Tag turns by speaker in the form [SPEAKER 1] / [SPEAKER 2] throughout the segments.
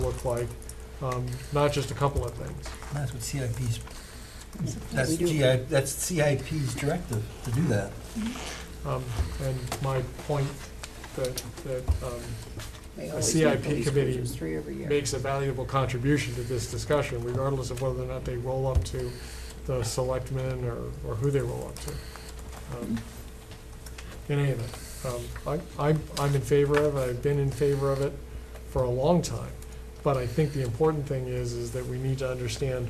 [SPEAKER 1] look like, um, not just a couple of things.
[SPEAKER 2] That's what CIP's, that's GI, that's CIP's directive to do that.
[SPEAKER 1] Um, And my point that, that um,
[SPEAKER 3] They
[SPEAKER 1] A
[SPEAKER 3] always
[SPEAKER 1] CIP
[SPEAKER 3] make police
[SPEAKER 1] committee
[SPEAKER 3] cruisers Three every year.
[SPEAKER 1] makes a valuable contribution to this discussion, regardless of whether or not they roll up to the selectmen or, or who they roll up to. Um, In any event, um, I, I'm, I'm in favor of, it. I've been in favor of it for a long time. But I think the important thing is, is that we need to understand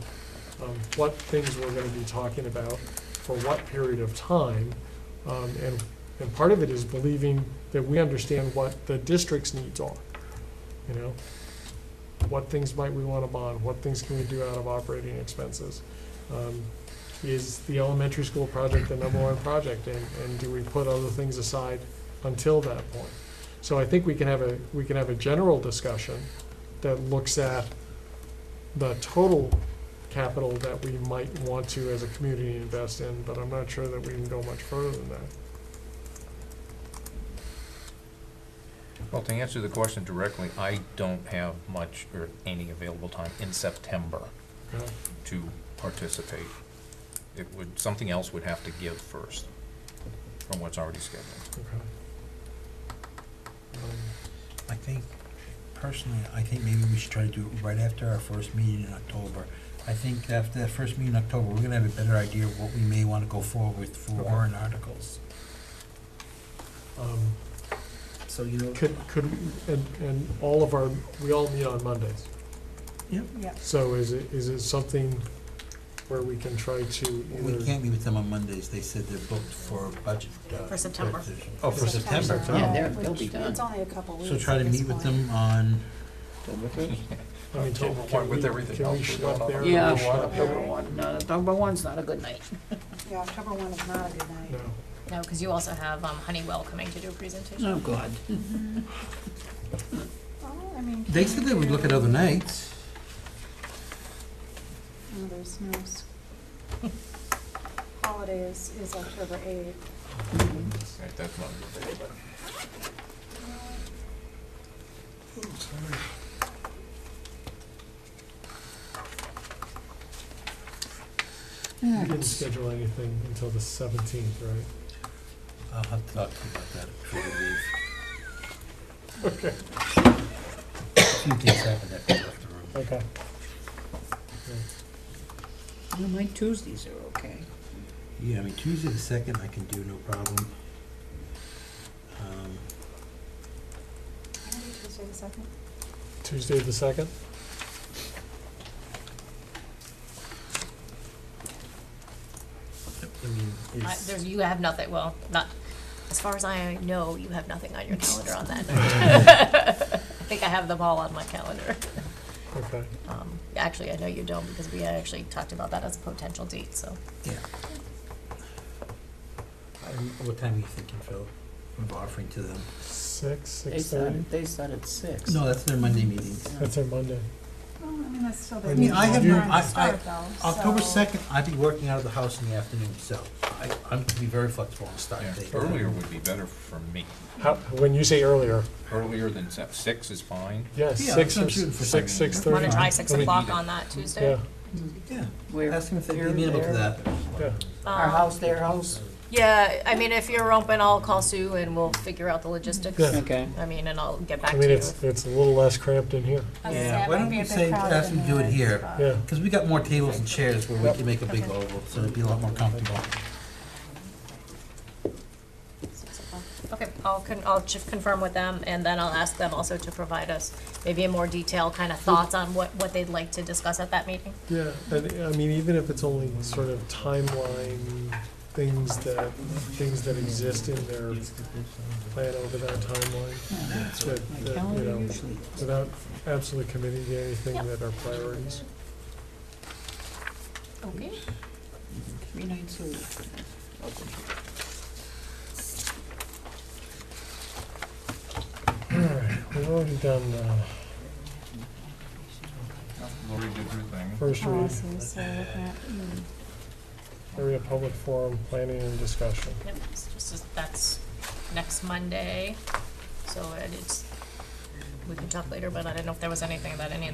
[SPEAKER 1] um, what things we're gonna be talking about for what period of time. Um, And, and part of it is believing that we understand what the district's needs are, you know? What things might we wanna bond, what things can we do out of operating expenses? Um, Is the elementary school project the number one project, and, and do we put other things aside until that point? So I think we can have a, we can have a general discussion that looks at the total capital that we might want to as a community invest in, but I'm not sure that we can go much further than that.
[SPEAKER 4] Well, to answer the question directly, I don't have much or any available time in September
[SPEAKER 1] you know?
[SPEAKER 4] to participate. It would, something else would have to give first from what's already scheduled.
[SPEAKER 1] Okay. Um,
[SPEAKER 2] I think, personally, I think maybe we should try to do it right after our first meeting in October. I think after that first meeting in October, we're gonna have a better idea of what we may wanna go forward with for
[SPEAKER 1] Okay.
[SPEAKER 2] warrant articles.
[SPEAKER 1] um,
[SPEAKER 2] So, you know.
[SPEAKER 1] Could, could, and, and all of our, we all meet on Mondays.
[SPEAKER 2] Yep.
[SPEAKER 3] Yep.
[SPEAKER 1] So is it, is it something where we can try to
[SPEAKER 2] We
[SPEAKER 1] either,
[SPEAKER 2] can't meet with them on Mondays, they said they're booked for budget. uh,
[SPEAKER 5] For September.
[SPEAKER 2] presentation. Oh, for
[SPEAKER 5] September.
[SPEAKER 2] September,
[SPEAKER 5] Yeah,
[SPEAKER 2] so,
[SPEAKER 5] they're- they'll be done.
[SPEAKER 3] It's only a couple weeks.
[SPEAKER 2] so try to
[SPEAKER 3] at this
[SPEAKER 2] meet with
[SPEAKER 3] point.
[SPEAKER 2] them on,
[SPEAKER 1] I mean, can-
[SPEAKER 4] October
[SPEAKER 1] can
[SPEAKER 4] one with
[SPEAKER 1] we-
[SPEAKER 4] everything
[SPEAKER 1] can we
[SPEAKER 4] else, we
[SPEAKER 1] schlep
[SPEAKER 4] don't
[SPEAKER 1] there?
[SPEAKER 4] know.
[SPEAKER 5] Yeah,
[SPEAKER 1] Can we
[SPEAKER 5] October
[SPEAKER 1] schlep there?
[SPEAKER 5] October one, no, October one's not a good night.
[SPEAKER 3] Yeah, October one is not a good night.
[SPEAKER 1] No.
[SPEAKER 6] No, because you also have um, Honeywell coming to do a presentation.
[SPEAKER 5] Oh, God.
[SPEAKER 3] Well, I mean.
[SPEAKER 2] they said they would look at other nights.
[SPEAKER 3] No, Oh, there's no. s- Holiday is, is October eighth.
[SPEAKER 4] Right, that's not a good day, but-
[SPEAKER 1] We didn't schedule anything until the seventeenth, right?
[SPEAKER 2] I'll have to talk to you about that before we leave. Okay. Few things happened after we left the room.
[SPEAKER 1] Okay.
[SPEAKER 5] No, my Tuesdays are okay.
[SPEAKER 2] Yeah, I mean, Tuesday the second I can do, no problem. Um,
[SPEAKER 3] Can I do Tuesday the second?
[SPEAKER 1] Tuesday the second?
[SPEAKER 2] I mean,
[SPEAKER 6] I-
[SPEAKER 2] it's,
[SPEAKER 6] There's, you have nothing, well, not, as far as I know, you have nothing on your calendar on that night. I think I have them all on my calendar.
[SPEAKER 1] Okay.
[SPEAKER 6] Um, Actually, I know you don't, because we had actually talked about that as a potential date, so.
[SPEAKER 2] yeah. I- What time are you thinking, Phil, of offering to them?
[SPEAKER 1] Six,
[SPEAKER 5] They
[SPEAKER 1] six thirty?
[SPEAKER 5] start, they start at six.
[SPEAKER 2] No, that's their Monday meeting.
[SPEAKER 1] That's our Monday.
[SPEAKER 3] Well, I mean, that's still.
[SPEAKER 1] I mean, I have no-
[SPEAKER 2] I- I-
[SPEAKER 3] though,
[SPEAKER 2] October
[SPEAKER 3] so-
[SPEAKER 2] second, I'd be working out of the house in the afternoon, so I, I'm gonna be very flexible on start
[SPEAKER 4] Yeah,
[SPEAKER 2] date.
[SPEAKER 4] Earlier would be better for me.
[SPEAKER 1] How, when you say earlier,
[SPEAKER 4] Earlier than se- six is fine.
[SPEAKER 1] yeah,
[SPEAKER 2] Yeah,
[SPEAKER 1] six
[SPEAKER 2] I'm
[SPEAKER 1] or,
[SPEAKER 2] shooting for
[SPEAKER 1] six,
[SPEAKER 4] seven.
[SPEAKER 1] six thirty?
[SPEAKER 6] Want to try six
[SPEAKER 1] I mean,
[SPEAKER 6] o'clock on that Tuesday?
[SPEAKER 1] Yeah,
[SPEAKER 2] Yeah,
[SPEAKER 5] We're-
[SPEAKER 2] ask them if they'd be
[SPEAKER 5] we're
[SPEAKER 2] amenable to
[SPEAKER 5] there.
[SPEAKER 2] that.
[SPEAKER 1] yeah.
[SPEAKER 6] Um,
[SPEAKER 5] Our house, their house,
[SPEAKER 6] Yeah, I mean, if you're open, I'll call Sue and we'll figure out the logistics.
[SPEAKER 1] Yeah.
[SPEAKER 5] okay.
[SPEAKER 6] I mean, and I'll get back
[SPEAKER 1] I
[SPEAKER 6] to you.
[SPEAKER 1] mean, it's, it's a little less cramped in here.
[SPEAKER 3] I was gonna
[SPEAKER 5] Yeah.
[SPEAKER 3] say, it
[SPEAKER 2] Why
[SPEAKER 3] might
[SPEAKER 2] don't
[SPEAKER 3] be
[SPEAKER 2] we
[SPEAKER 3] a bit
[SPEAKER 2] say,
[SPEAKER 3] crowded
[SPEAKER 2] ask
[SPEAKER 3] in
[SPEAKER 2] them to do
[SPEAKER 3] there.
[SPEAKER 2] it here?
[SPEAKER 6] Uh,
[SPEAKER 1] Yeah,
[SPEAKER 2] Because we got more tables and chairs where we
[SPEAKER 1] Yep.
[SPEAKER 2] can make a big
[SPEAKER 6] Okay.
[SPEAKER 2] oval, so it'd be a lot more comfortable.
[SPEAKER 3] Six o'clock.
[SPEAKER 6] Okay, I'll con, I'll just confirm with them, and then I'll ask them also to provide us maybe a more detailed kind of thoughts on what, what they'd like to discuss at that meeting.
[SPEAKER 1] yeah, and, I mean, even if it's only sort of timeline, things that, things that exist in their plan over that timeline,
[SPEAKER 5] Yeah,
[SPEAKER 1] that,
[SPEAKER 5] My
[SPEAKER 1] that, you
[SPEAKER 5] calendar
[SPEAKER 1] know,
[SPEAKER 5] usually.
[SPEAKER 1] without absolutely committing to anything that are priorities.
[SPEAKER 6] Okay.
[SPEAKER 5] Three nights a week.
[SPEAKER 1] All right, we've already done, uh,
[SPEAKER 4] Lori did her thing.
[SPEAKER 1] first
[SPEAKER 3] Oh, I
[SPEAKER 1] read,
[SPEAKER 3] see, so looking at, hmm,
[SPEAKER 1] area public forum, planning and discussion.
[SPEAKER 6] Yep, it's just, as- that's next Monday, so it is, we can talk later, but I didn't know if there was anything that any of